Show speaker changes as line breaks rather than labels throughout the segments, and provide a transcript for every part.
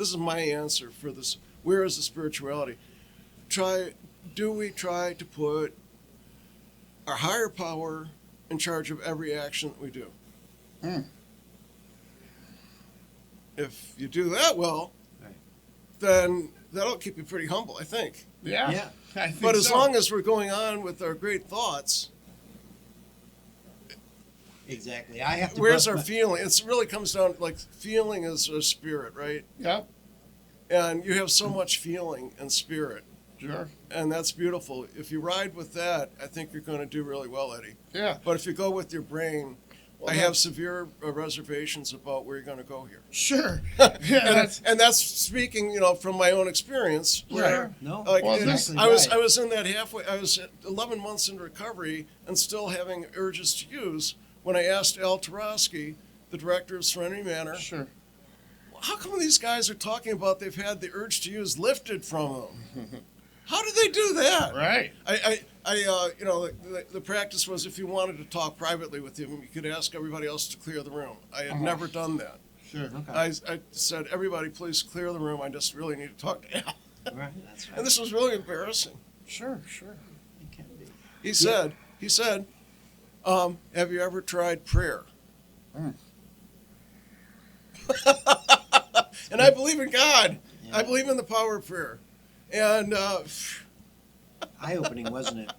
This is my answer for this. Where is the spirituality? Try, do we try to put our higher power in charge of every action that we do?
Hmm.
If you do that well,
Right.
then that'll keep you pretty humble, I think.
Yeah.
Yeah.
I think
But as
so.
long as we're going on with our great thoughts,
Exactly. I have to.
where's
brush
our
my-
feeling? It really comes down like feeling is a spirit, right?
Yep.
And you have so much feeling and spirit,
Sure.
and that's beautiful. If you ride with that, I think you're going to do really well, Eddie.
Yeah.
But if you go with your brain,
Well,
I
that-
have severe uh, reservations about where you're going to go here.
Sure. yeah.
and,
That's.
and that's speaking, you know, from my own experience.
Sure.
Where,
No.
like,
Well,
it-
exactly
Oh, I was
right.
I was in that halfway. I was at 11 months in recovery and still having urges to use. When I asked Al Tarosky, the director of Serenity Manor,
Sure.
how come these guys are talking about they've had the urge to use lifted from them? How did they do that?
Right.
I, I, I uh, you know, the, the practice was if you wanted to talk privately with him, you could ask everybody else to clear the room. I had never done that.
Sure.
Okay.
I, I said, everybody, please clear the room. I just really need to talk to Al.
Right, that's right.
And this was really embarrassing.
Sure. Sure.
It can be.
He said, he said, um, have you ever tried prayer?
Mm.
and I believe in God. I
Yeah.
believe in the power of prayer. And uh,
Eye opening, wasn't it?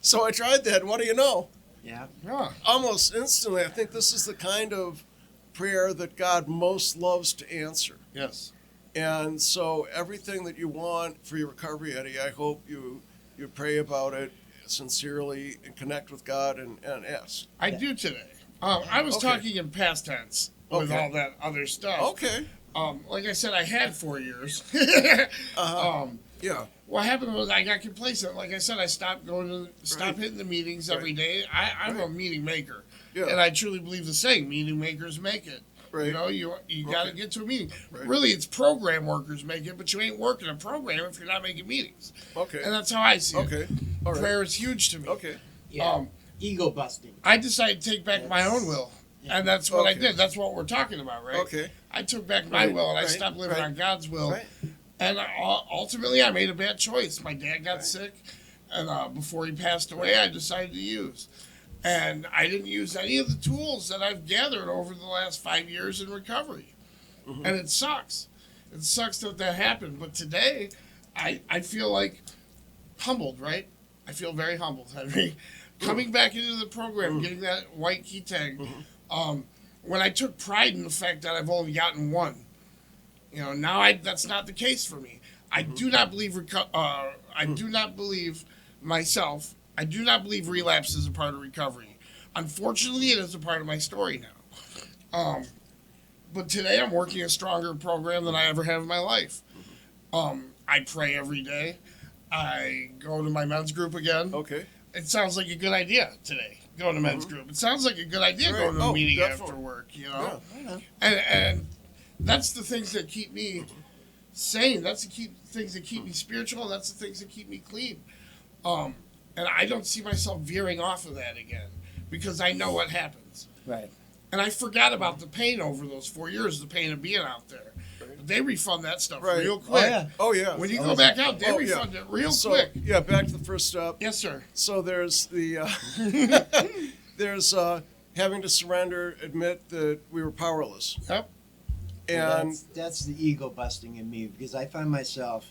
so I tried that. What do you know?
Yeah.
Yeah.
Almost instantly, I think this is the kind of prayer that God most loves to answer.
Yes.
And so everything that you want for your recovery, Eddie, I hope you you pray about it sincerely and connect with God and, and ask.
I
Yeah.
do today. Um, I was
Okay.
talking in past tense with
Okay.
all that other stuff.
Okay.
Um, like I said, I had four years.
Uh-huh.
um,
Yeah.
what happened was I got complacent. Like I said, I stopped going to stop
Right.
hitting the meetings every
Right.
day. I, I'm a
Right.
meeting maker,
Yeah.
and I truly believe the saying: meeting makers make it. You
right.
know, you you got to
Okay.
get to a meeting.
Right.
Really, it's program workers make it, but you ain't working a program if you're not making meetings.
Okay.
And that's how I see it.
Okay. All right.
Prayer is huge to me.
Okay.
Yeah.
Um,
Ego busting.
I decided to take back my own will,
Yeah.
and that's what I
Okay.
did. That's what we're talking about, right?
Okay.
I took back my
Right,
will and I
right,
stopped living
right,
on God's will.
right.
And I, ul- ultimately, I made a bad choice. My dad got
Right.
sick, and uh, before he passed away, I decided to use. And I didn't use any of the tools that I've gathered over the last five years in recovery. And it sucks. It sucks that that happened. But today, I, I feel like humbled, right? I feel very humbled, Henry. Coming back into the program, getting that white key tag, um, when I took pride in the fact that I've only gotten one. You know, now I that's not the case for me. I do not believe reco- uh, I do not believe myself. I do not believe relapse is a part of recovery. Unfortunately, it is a part of my story now. Um, but today I'm working a stronger program than I ever have in my life. Um, I pray every day. I go to my men's group again.
Okay.
It sounds like a good idea today. Going to men's group. It sounds like a good idea
Right.
going to a
Mm-hmm. Oh,
meeting after
definitely.
work. You know
Yeah.
and and that's the things that keep me sane. That's the keep things that keep me spiritual. And that's the things that keep me clean. Um, and I don't see myself veering off of that again because I know what happens.
Right.
And I forgot about the pain over those four years, the pain of being out there. But they refund that stuff
Right.
real
Oh,
quick.
yeah.
Oh yeah.
When you
Oh,
go back out, they
Oh, yeah.
refund it real
so,
quick.
Yeah. Back to the first step.
Yes, sir.
So there's the uh, there's uh, having to surrender, admit that we were powerless,
Yep.
and
that's, that's the ego busting in me because I find myself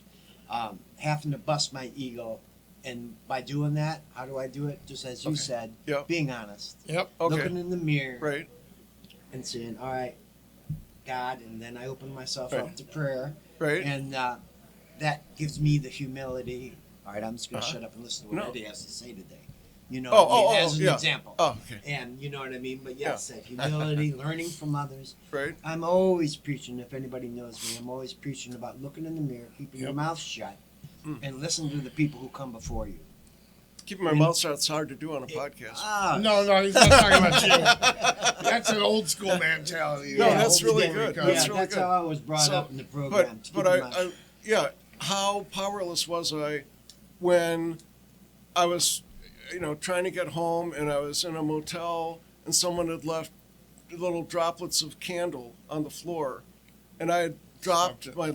um, having to bust my ego, and by doing that, how do I do it? Just as you
Okay.
said,
Yep.
being honest,
Yep.
okay.
looking in the mirror,
Right.
and saying, "All right, God," and then I open myself
Right.
up to prayer,
Right.
and uh, that gives me the humility. All right, I'm just going to
Uh-huh.
shut up and listen to what
No.
Eddie has to say today. You know,
Oh,
what I mean?
oh, oh,
as an
yeah.
example.
oh. Okay.
And you know what I mean? But yes, that humility, learning from others,
Right.
I'm always preaching, if anybody knows me, I'm always preaching about looking in the mirror, keeping your
Yep.
mouth shut,
Mm.
and listen to the people who come before you.
Keeping my mouth shut. It's hard to do on a podcast.
Ah,
No, no, he's not talking about you. That's an old school mentality.
No,
Yeah.
that's really
Yeah,
good.
yeah,
That's really
that's
good.
how I was brought
So,
up in the
but
program. to
but
keep
I,
your mouth
I
shut.
yeah how powerless was i when i was you know trying to get home and i was in a motel and someone had left little droplets of candle on the floor and i had dropped my